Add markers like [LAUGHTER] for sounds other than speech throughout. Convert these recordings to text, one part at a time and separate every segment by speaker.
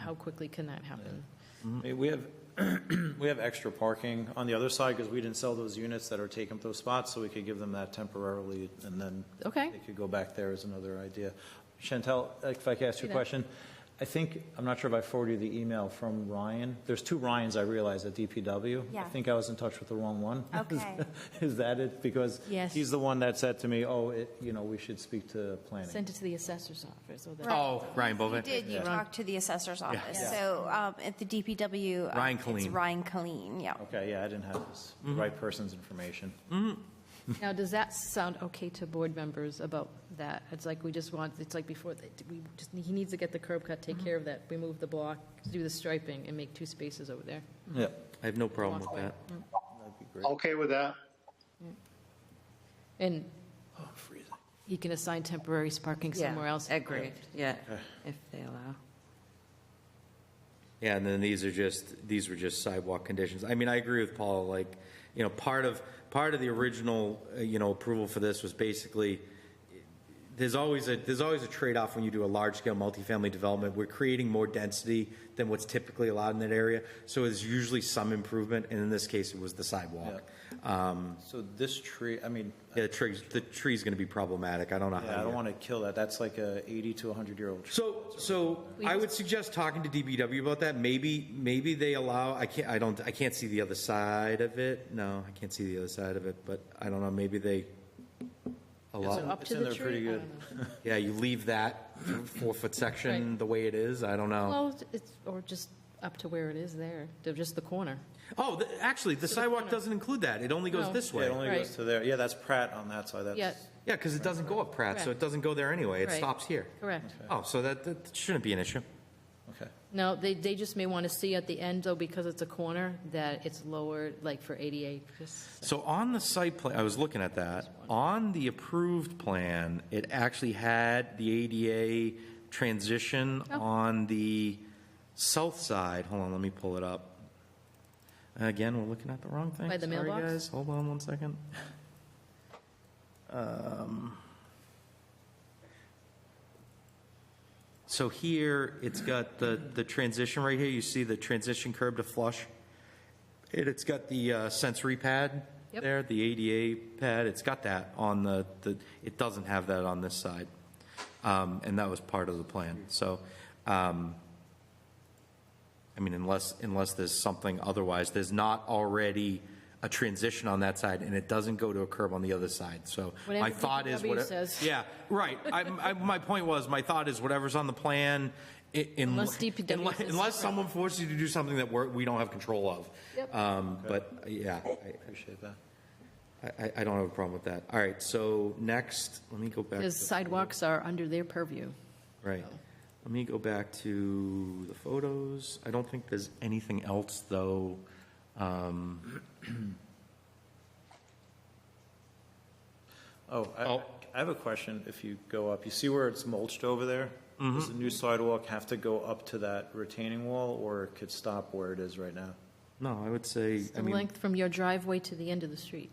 Speaker 1: how quickly can that happen?
Speaker 2: I mean, We have, [CLEARS THROAT] we have extra parking on the other side because we didn't sell those units that are taking up those spots, so we could give them that temporarily and then
Speaker 1: Okay.
Speaker 2: they could go back there is another idea. Chantel, if I could ask you a
Speaker 1: Yeah.
Speaker 2: question, I think, I'm not sure if I forwarded you the email from Ryan. There's two Ryans, I realize, at DPW. I
Speaker 3: Yeah.
Speaker 2: think I was in touch with the wrong one.
Speaker 3: Okay.
Speaker 2: [LAUGHS] Is that it? Because
Speaker 1: Yes.
Speaker 2: he's the one that said to me, oh, it- you know, we should speak to planning.
Speaker 1: Send it to the assessor's office or the.
Speaker 3: Right.
Speaker 4: Oh, Ryan
Speaker 3: You
Speaker 4: Bovee.
Speaker 3: did, you talked to the assessor's office.
Speaker 2: Yeah.
Speaker 3: So um, at the DPW. uh,
Speaker 4: Ryan
Speaker 3: It's
Speaker 4: Killeen.
Speaker 3: Ryan Colleen, yeah.
Speaker 2: Okay, yeah, I didn't have this, the right person's information.
Speaker 1: Now, does that sound okay to board members about that? It's like, we just want, it's like before, that we just, he needs to get the curb cut, take care of that, remove the block, do the striping, and make two spaces over there.
Speaker 2: Yeah,
Speaker 4: I have no problem with that.
Speaker 2: that'd be great.
Speaker 5: Okay with that?
Speaker 1: And
Speaker 2: Oh, I'm freezing.
Speaker 1: he can assign temporary parking
Speaker 6: Yeah,
Speaker 1: somewhere else.
Speaker 6: Agreed, yeah, if they allow.
Speaker 4: Yeah, and then these are just, these were just sidewalk conditions. I mean, I agree with Paul, like, you know, part of, part of the original, uh, you know, approval for this was basically, there's always a, there's always a trade-off when you do a large-scale multifamily development. We're creating more density than what's typically allowed in that area, so there's usually some improvement, and in this case, it was the sidewalk. Um,
Speaker 2: So this tree, I mean,
Speaker 4: Yeah, the tree, the tree's gonna be problematic, I don't know how.
Speaker 2: yeah, I
Speaker 4: you-
Speaker 2: don't want to kill that. That's like a 80 to 100-year-old tree.
Speaker 4: So, so I would suggest talking to DBW about that. Maybe, maybe they allow, I can't, I don't, I can't see the other side of it. No, I can't see the other side of it, but I don't know, maybe they
Speaker 1: So
Speaker 4: allow.
Speaker 1: up
Speaker 2: it's
Speaker 1: to
Speaker 2: in
Speaker 1: the
Speaker 2: there pretty
Speaker 1: tree? I
Speaker 2: good.
Speaker 1: don't know.
Speaker 4: Yeah, you leave that four-foot section
Speaker 1: Right.
Speaker 4: the way it is, I don't know.
Speaker 1: Well, it's, or just up to where it is there, to just the corner.
Speaker 4: Oh, the- actually, the sidewalk doesn't include that. It only goes
Speaker 1: No.
Speaker 4: this
Speaker 2: Yeah, it
Speaker 4: way.
Speaker 2: only
Speaker 1: Right.
Speaker 2: goes to there. Yeah, that's Pratt on that side.
Speaker 1: Yeah,
Speaker 2: That's,
Speaker 4: Yeah, because it doesn't go up Pratt, so
Speaker 1: Correct.
Speaker 4: it doesn't go there anyway. It
Speaker 1: Right.
Speaker 4: stops here.
Speaker 1: correct.
Speaker 4: Oh, so that, that shouldn't be an issue.
Speaker 2: okay.
Speaker 1: No, they, they just may want to see at the end, though, because it's a corner, that it's lower, like for ADA. just-
Speaker 4: So on the site plan, I was looking at that, on the approved plan, it actually had the ADA transition
Speaker 1: Oh.
Speaker 4: on the south side, hold on, let me pull it up. Again, we're looking at the wrong thing.
Speaker 1: By the
Speaker 4: Sorry,
Speaker 1: mailbox?
Speaker 4: guys. Hold on one second. Um, So here, it's got the, the transition right here, you see the transition curb to flush? It, it's got the uh, sensory pad
Speaker 1: Yep.
Speaker 4: there, the ADA pad, it's got that on the, the, it doesn't have that on this side. Um, and that was part of the plan, so, um, I mean, unless, unless there's something otherwise, there's not already a transition on that side, and it doesn't go to a curb on the other side, so my
Speaker 1: Whatever
Speaker 4: thought is.
Speaker 1: DPW
Speaker 4: whate-
Speaker 1: says.
Speaker 4: Yeah, right, I, I, my point was, my thought is whatever's on the plan, i- in.
Speaker 1: Unless DPW
Speaker 4: unless-
Speaker 1: says
Speaker 4: Unless someone forces you to do something that we're, we don't have control of.
Speaker 1: Yep.
Speaker 4: Um, But, yeah, I-
Speaker 2: Appreciate that.
Speaker 4: I, I don't have a problem with that. All right, so next, let me go back.
Speaker 1: Because
Speaker 4: to-
Speaker 1: sidewalks are under their purview.
Speaker 4: Right. Let me go back to the photos. I don't think there's anything else, though. Um,
Speaker 2: Oh, I,
Speaker 4: Oh.
Speaker 2: I have a question. If you go up, you see where it's mulched over there?
Speaker 4: Mm-hmm.
Speaker 2: Does the new sidewalk have to go up to that retaining wall or it could stop where it is right now?
Speaker 4: No, I would say,
Speaker 1: It's
Speaker 4: I
Speaker 1: the
Speaker 4: mean,
Speaker 1: length from your driveway to the end of the street.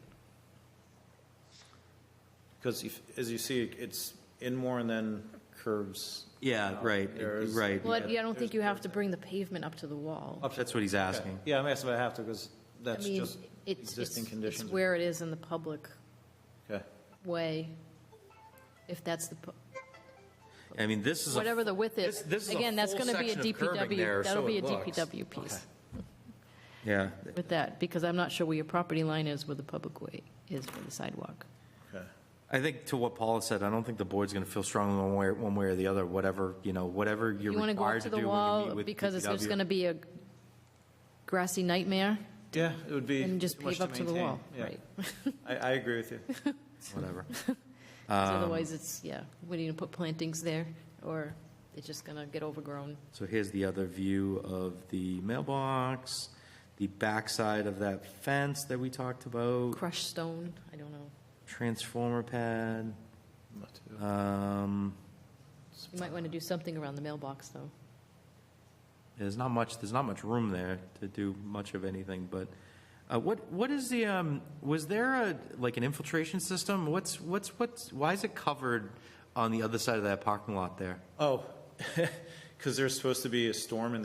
Speaker 2: Because if, as you see, it's in more and then curves.
Speaker 4: yeah, right,
Speaker 2: There's-
Speaker 4: right.
Speaker 1: Well, I I don't think you have to bring the pavement up to the wall.
Speaker 4: Oh, That's what he's asking.
Speaker 2: Yeah, I'm asking if I have to because
Speaker 1: I
Speaker 2: that's
Speaker 1: mean,
Speaker 2: just
Speaker 1: it's, it's
Speaker 2: existing
Speaker 1: it's
Speaker 2: conditions.
Speaker 1: where it is in the public
Speaker 2: Okay.
Speaker 1: way, if that's the, pu-
Speaker 4: I mean, this is. a-
Speaker 1: whatever the width
Speaker 4: this-
Speaker 1: is.
Speaker 4: this is a
Speaker 1: Again, that's
Speaker 4: full
Speaker 1: going to be a
Speaker 4: section of curbing
Speaker 1: DPW,
Speaker 4: there, so
Speaker 1: that'll be a
Speaker 4: it looks.
Speaker 1: DPW piece
Speaker 4: Yeah,
Speaker 1: with that, because I'm not sure where your property line is where the public way is for the sidewalk.
Speaker 2: Okay.
Speaker 4: I think to what Paula said, I don't think the board's going to feel strongly one way, one way or the other, whatever, you know, whatever you're
Speaker 1: You want to go up
Speaker 4: required
Speaker 1: to
Speaker 4: to
Speaker 1: the
Speaker 4: do when you
Speaker 1: wall
Speaker 4: meet with
Speaker 1: because it's just
Speaker 4: DPW.
Speaker 1: going to be a grassy nightmare
Speaker 2: Yeah, it would be.
Speaker 1: and just
Speaker 2: too much
Speaker 1: pave up to the
Speaker 2: maintain.
Speaker 1: wall,
Speaker 2: Yeah.
Speaker 1: right?
Speaker 2: I, I agree with you.
Speaker 1: [LAUGHS]
Speaker 4: Whatever.
Speaker 1: 'Cause Otherwise, it's, yeah, we need to put plantings there or it's just going to get overgrown.
Speaker 4: So here's the other view of the mailbox, the backside of that fence that we talked about,
Speaker 1: Crushed stone, I don't know.
Speaker 4: transformer pad.
Speaker 2: Not too-
Speaker 4: Um,
Speaker 1: You might want to do something around the mailbox, though.
Speaker 4: there's not much, there's not much room there to do much of anything, but, uh, what, what is the, um, was there a, like an infiltration system? What's, what's, what's, why is it covered
Speaker 2: [LAUGHS]
Speaker 4: on the other side of that parking lot there?
Speaker 2: Oh, because there's supposed to be a storm in